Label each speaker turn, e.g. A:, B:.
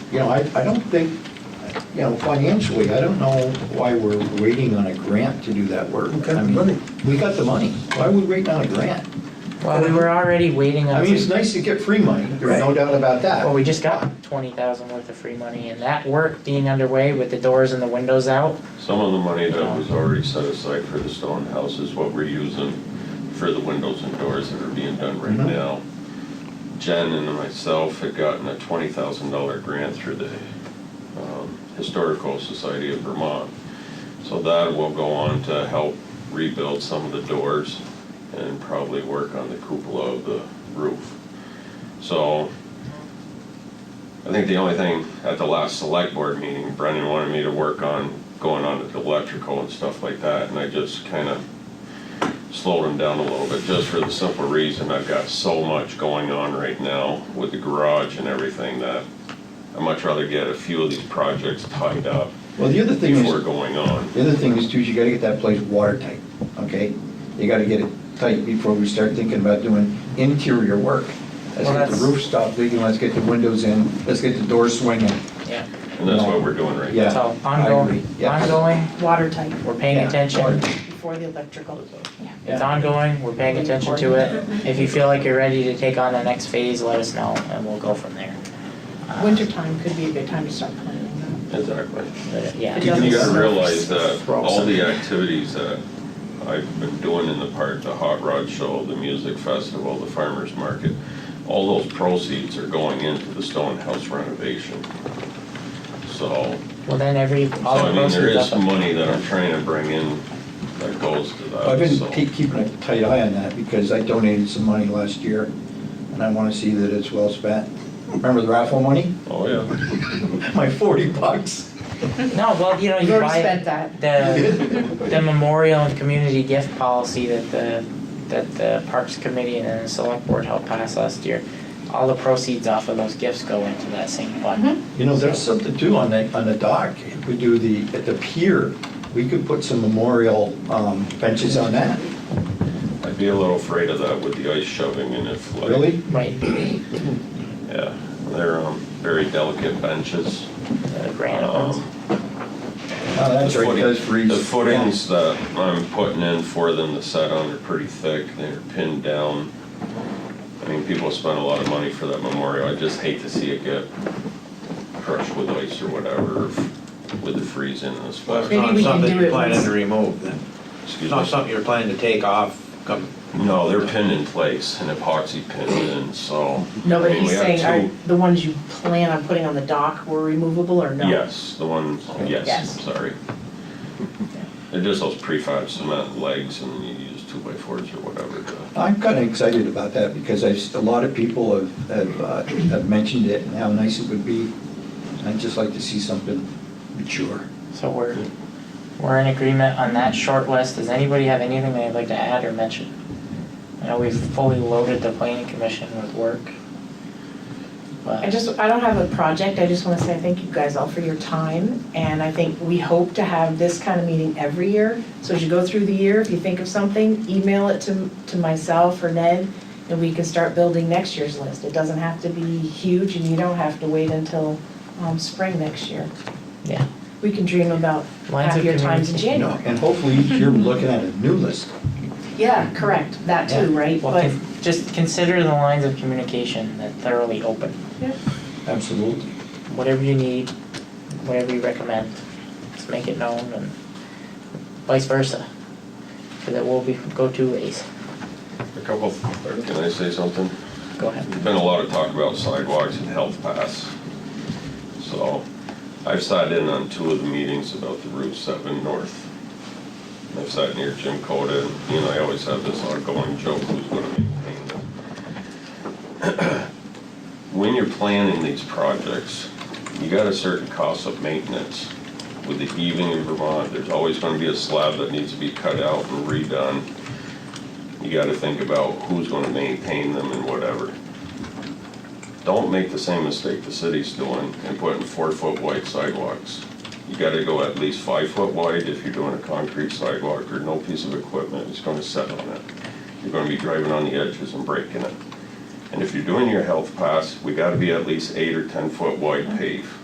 A: you know, I, I don't think, you know, financially, I don't know why we're waiting on a grant to do that work.
B: We got the
A: I mean,
B: money.
A: We got the money. Why are we waiting on a grant?
C: Well, we were already waiting on.
A: I mean, it's nice to get free money, there's no
B: Right.
A: doubt about that.
C: Well, we just got twenty thousand worth of free money and that work being underway with the doors and the windows out,
D: Some of the money that was already set aside for the stone house is what we're using for the windows and doors that are being done right
A: Mhm.
D: now. Jen and myself had gotten a twenty thousand dollar grant through the um, Historical Society of Vermont. So that will go on to help rebuild some of the doors and probably work on the cupola of the roof. So I think the only thing at the last select board meeting, Brendan wanted me to work on going on to the electrical and stuff like that, and I just kind of slowed him down a little bit, just for the simple reason I've got so much going on right now with the garage and everything that I'd much rather get a few of these projects tied up
A: Well, the other thing
D: before
A: is,
D: going on.
A: the other thing is too, is you gotta get that place watertight, okay? You gotta get it tight before we start thinking about doing interior work. Let's
C: Well,
A: get the
C: that's-
A: roof stopped leaking, let's get the windows in, let's get the doors swinging.
C: yeah.
D: And that's what we're doing right now.
A: Yeah,
C: So
A: I
C: ongoing,
A: agree. Yeah.
C: ongoing,
E: watertight
C: we're paying
A: Yeah.
C: attention,
E: before the electrical. Yeah.
C: it's ongoing, we're paying attention to it. If you feel like you're ready to take on the next phase, let us know and we'll go from there. Uh,
E: Wintertime could be a good time to start planning that.
D: Exactly.
C: but, Yeah.
E: It
D: You
E: doesn't
D: gotta
E: snow.
D: realize that
A: We're all
D: all the
A: set.
D: activities that I've been doing in the park, the hot rod show, the music festival, the farmer's market, all those proceeds are going into the stone house renovation. So,
C: Well, then every,
D: so
C: all
D: I
C: the
D: mean, there
C: proceeds
D: is
C: of,
D: money that I'm trying to bring in that goes to
A: I've
D: that,
A: been
D: so.
A: keep- keeping a tight eye on that because I donated some money last year and I want to see that it's well spent. Remember the raffle money?
D: Oh, yeah.
A: My 40 bucks.
C: no, well, you know,
E: You've
C: you
E: already
C: buy
E: spent that.
C: the, the memorial and community gift policy that the, that the Parks Committee and the Select Board helped pass last year. All the proceeds off of those gifts go into that same fund.
E: Mm-hmm.
A: You know, there's something too on the, on the dock. If we do the, at the pier, we could put some memorial um, benches on that.
D: I'd be a little afraid of that with the ice shoving and if like.
A: Really?
C: Right,
D: Yeah, they're, um, very delicate benches.
C: the grant
D: Um,
C: funds.
A: Oh, That's right, it does freeze.
D: The footings that I'm putting in for them to set on are pretty thick, they're pinned down. I mean, people spend a lot of money for that memorial, I just hate to see it get crushed with ice or whatever, with the freeze in this
F: Well,
D: spot.
F: it's
E: Maybe
F: not
E: we can
F: something
E: do
F: you're
E: it
F: planning
E: once-
F: to remove then. It's
D: Excuse
F: not
D: me.
F: something you're planning to take off, come,
D: No, they're pinned in place, and epoxy pinned in, so.
E: No, but
D: I mean,
E: he's
D: we have
E: saying, are
D: two-
E: the ones you plan on putting on the dock were removable or no?
D: Yes, the ones, yes,
E: Yes.
D: sorry. They're just those prefab cement legs, and you use two by fours or whatever to.
A: I'm kind of excited about that because I've, s- a lot of people have, have, uh, have mentioned it and how nice it would be. I'd just like to see something mature.
C: So we're, we're in agreement on that short list. Does anybody have anything they'd like to add or mention? I know we've fully loaded the planning commission with work.
E: I
C: But,
E: just, I don't have a project, I just wanna say thank you guys all for your time, and I think we hope to have this kind of meeting every year. So as you go through the year, if you think of something, email it to, to myself or Ned, and we can start building next year's list. It doesn't have to be huge, and you don't have to wait until, um, spring next year.
C: yeah.
E: We can dream about
C: Lines of
E: happier times in
A: You
E: January.
A: know, and hopefully you're looking at a new list.
E: Yeah, correct, that too,
A: Yeah.
E: right?
C: Well,
E: But
C: con- just consider the lines of communication that thoroughly open.
A: Absolutely.
C: Whatever you need, whatever you recommend, just make it known and vice versa. So that we'll be, go two ways.
D: A couple, or can I say something?
C: Go ahead.
D: There's been a lot of talk about sidewalks and health pass. So I've sat in on two of the meetings about the Route 7 North. And I've sat near Jim Coda, and you know, I always have this ongoing joke, who's gonna maintain them? When you're planning these projects, you got a certain cost of maintenance. With the heaving in Vermont, there's always gonna be a slab that needs to be cut out and redone you gotta think about who's gonna maintain them and whatever. Don't make the same mistake the city's doing and putting four-foot wide sidewalks. You gotta go at least five-foot wide if you're doing a concrete sidewalk or no piece of equipment is gonna set on it. You're gonna be driving on the edges and breaking it. And if you're doing your health pass, we gotta be at least eight or ten-foot wide pave.